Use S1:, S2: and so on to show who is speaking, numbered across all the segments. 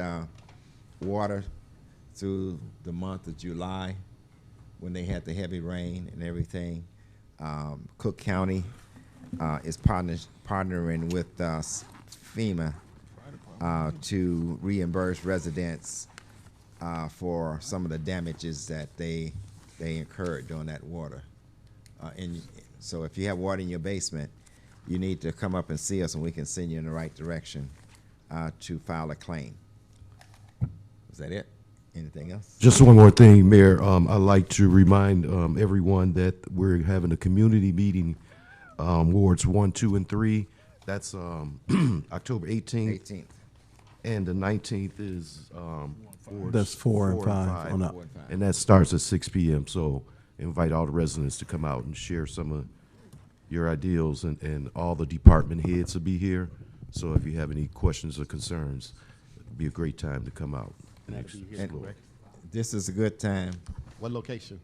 S1: uh, water through the month of July when they had the heavy rain and everything. Um, Cook County uh, is partners, partnering with uh, FEMA uh, to reimburse residents uh, for some of the damages that they they incurred during that water. Uh, and so, if you have water in your basement, you need to come up and see us, and we can send you in the right direction uh, to file a claim. Is that it? Anything else?
S2: Just one more thing, Mayor. Um, I'd like to remind um, everyone that we're having a community meeting, um, wards one, two, and three. That's um, October 18th,
S1: 18th.
S2: and the 19th is um, wards
S3: That's four and five on up.
S1: Four and five.
S2: And that starts at 6 p.m. So invite all the residents to come out and share some of your ideals, and, and all the department heads will be here. So if you have any questions or concerns, it'd be a great time to come out and actually explore.
S1: This is a good time.
S4: What location?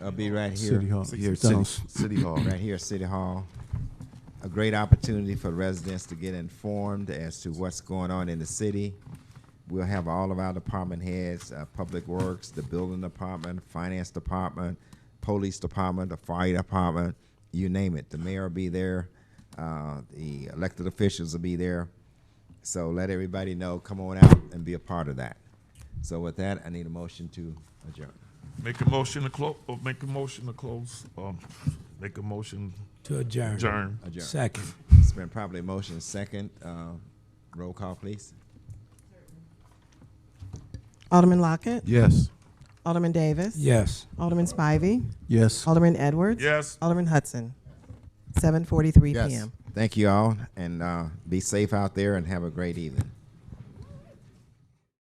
S1: I'll be right here.
S3: City Hall.
S2: Here at City,
S3: Down-
S2: City Hall.
S1: right here at City Hall. A great opportunity for residents to get informed as to what's going on in the city. We'll have all of our department heads, uh, Public Works, the Building Department, Finance Department, Police Department, the Fire Department, you name it. The mayor will be there, uh, the elected officials will be there. So let everybody know, come on out and be a part of that. So with that, I need a motion to adjourn.
S5: Make a motion to close, make a motion to close, um, make a motion,
S6: To adjourn.
S5: adjourn.
S1: Adjourn.
S6: Second.
S1: It's been properly motion second. Uh, roll call, please.
S7: Alderman Lockett.
S2: Yes.
S7: Alderman Davis.
S6: Yes.
S7: Alderman Spivey.
S3: Yes.
S7: Alderman Edwards.
S5: Yes.
S7: Alderman Hudson. 7:43
S4: Yes.
S7: p.m.
S1: Thank you all, and uh, be safe out there and have a great evening.